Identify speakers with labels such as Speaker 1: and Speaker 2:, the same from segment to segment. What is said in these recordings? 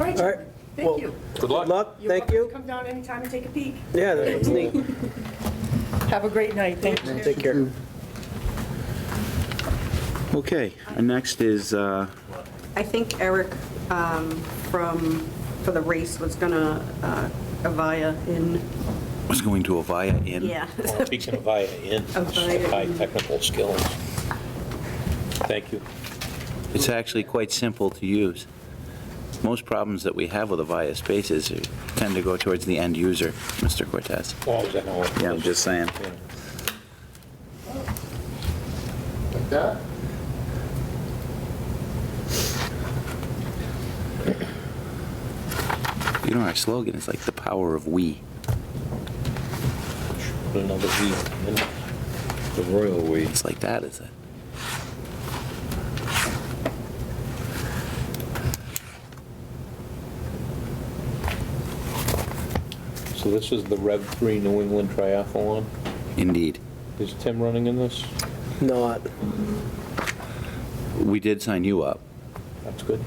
Speaker 1: All right. Well,
Speaker 2: Thank you.
Speaker 3: Good luck.
Speaker 1: Good luck,
Speaker 2: You're welcome
Speaker 1: thank
Speaker 2: to
Speaker 1: you.
Speaker 2: Come down anytime and take a peek.
Speaker 1: Yeah, that's neat.
Speaker 2: Have a great night. Thank you.
Speaker 1: Take care.
Speaker 4: Okay, and next is, uh,
Speaker 5: I think Eric um, from, for the race was gonna, uh, Avaya in,
Speaker 4: was going to Avaya Inn.
Speaker 5: yeah.
Speaker 6: Speaking of I N,
Speaker 5: Avaya.
Speaker 6: high technical skills. Thank you.
Speaker 4: It's actually quite simple to use. Most problems that we have with Avaya spaces tend to go towards the end user, Mr. Cortez.
Speaker 6: Well, I was at home.
Speaker 4: Yeah, I'm just saying.
Speaker 6: Yeah.
Speaker 7: Like that?
Speaker 4: You know, our slogan is like the power of we.
Speaker 6: Put another V in.
Speaker 8: The royal we.
Speaker 4: It's like that, is it?
Speaker 6: So this is the Rev 3 New England Triathlon.
Speaker 4: Indeed.
Speaker 6: Is Tim running in this?
Speaker 1: Not,
Speaker 4: We did sign you up.
Speaker 6: That's good.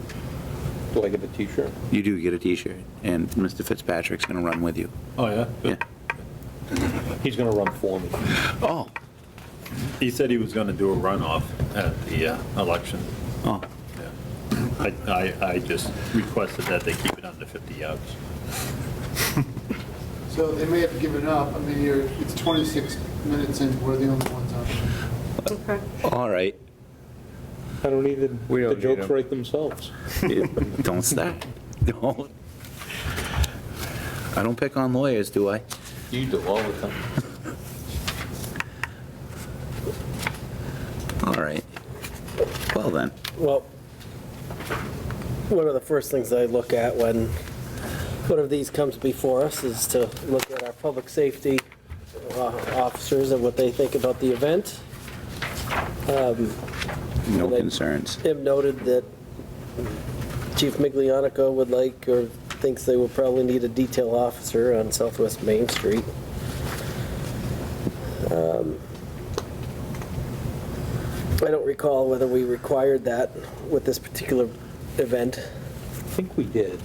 Speaker 6: Do I get a t-shirt?
Speaker 4: You do get a T-shirt, and Mr. Fitzpatrick's going to run with you.
Speaker 8: Oh, yeah?
Speaker 4: Yeah.
Speaker 6: He's going to run for me.
Speaker 4: Oh,
Speaker 8: He said he was going to do a runoff at the uh, election.
Speaker 4: oh,
Speaker 8: Yeah. I, I, I just requested that they keep it under 50 yards.
Speaker 7: So they may have given up, I mean, you're, it's 26 minutes and we're the only ones out.
Speaker 5: Okay.
Speaker 4: all right.
Speaker 6: I don't need them.
Speaker 8: We don't
Speaker 6: The
Speaker 8: need
Speaker 6: jokes
Speaker 8: them.
Speaker 6: write themselves.
Speaker 4: Don't stop. Don't. I don't pick on lawyers, do I?
Speaker 6: You do all the time.
Speaker 4: All right. Well, then.
Speaker 1: well, one of the first things I look at when one of these comes before us is to look at our public safety uh, officers and what they think about the event.
Speaker 4: No
Speaker 1: Well, then-
Speaker 4: concerns.
Speaker 1: Tim noted that Chief Miglianico would like, or thinks they will probably need a detail officer on Southwest Main Street. Um, I don't recall whether we required that with this particular event.
Speaker 6: I think we did.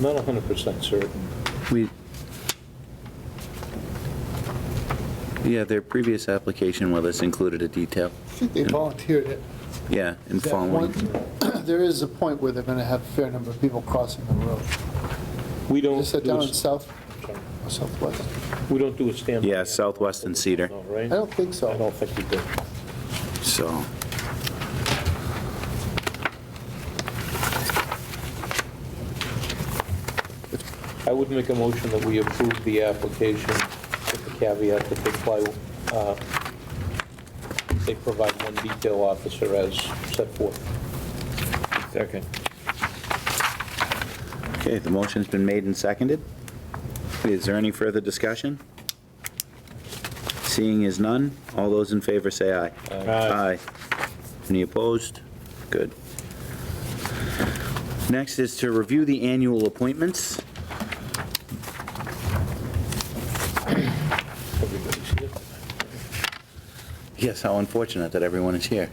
Speaker 6: Not 100% certain.
Speaker 4: We, yeah, their previous application with us included a detail.
Speaker 7: I think they volunteered it.
Speaker 4: Yeah, and
Speaker 7: That
Speaker 4: following.
Speaker 7: point- There is a point where they're going to have a fair number of people crossing the road.
Speaker 6: We don't.
Speaker 7: Is that
Speaker 6: do
Speaker 7: down
Speaker 6: a-
Speaker 7: in south, or southwest?
Speaker 6: We don't do a stand.
Speaker 4: Yeah, Southwest and Cedar.
Speaker 6: No,
Speaker 7: I
Speaker 6: Right?
Speaker 7: don't think so.
Speaker 6: I don't think we did.
Speaker 4: So.
Speaker 6: I would make a motion that we approve the application with the caveat that they apply, uh, they provide one detail officer as set forth. Second.
Speaker 4: Okay, the motion's been made and seconded. Is there any further discussion? Seeing is none, all those in favor say aye.
Speaker 6: Aye.
Speaker 4: Aye. Any opposed? Good. Next is to review the annual appointments.
Speaker 6: Everybody's here.
Speaker 4: Yes, how unfortunate that everyone is here.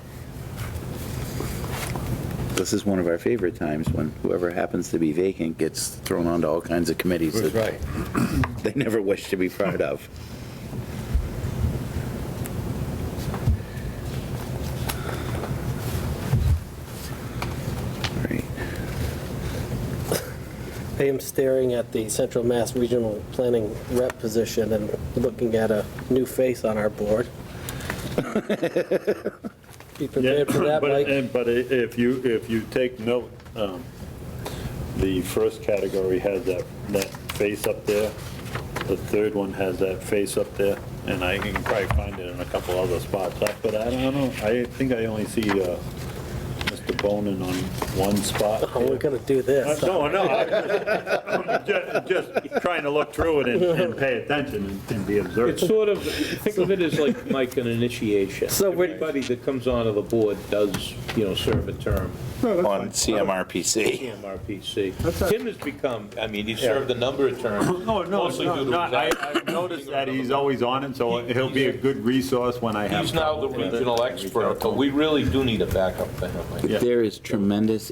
Speaker 4: This is one of our favorite times, when whoever happens to be vacant gets thrown onto all kinds of committees that
Speaker 8: right.
Speaker 4: they never wish to be part of. Right.
Speaker 1: I am staring at the Central Mass Regional Planning Rep position and looking at a new face on our board. Be
Speaker 8: Yeah,
Speaker 1: prepared for that,
Speaker 8: but, uh,
Speaker 1: Mike.
Speaker 8: and- but i- if you, if you take note, um, the first category has that, that face up there. The third one has that face up there, and I can probably find it in a couple other spots. I- But I don't know, I think I only see uh, Mr. Bonin on one spot.
Speaker 1: Oh, we're gonna do
Speaker 8: Uh,
Speaker 1: this.
Speaker 8: No, no, I'm ju- just trying to look through it and- and pay attention and- and be observant.
Speaker 9: It's sort of, think of it as like, like an initiation.
Speaker 1: So we're-
Speaker 9: Everybody that comes onto the board does, you know, serve a term
Speaker 4: On CMRPC.
Speaker 9: CMRPC. Tim has become, I mean, he's served a number of terms.
Speaker 8: No, no,
Speaker 9: mostly due
Speaker 8: no,
Speaker 9: to
Speaker 8: no, I-
Speaker 9: his act-
Speaker 8: I've noticed that he's always on it, so he'll be a good resource when I have.
Speaker 9: He's now the
Speaker 8: problems.
Speaker 9: regional expert, but we really do need a backup for him, I think.
Speaker 8: Yeah.
Speaker 4: There is tremendous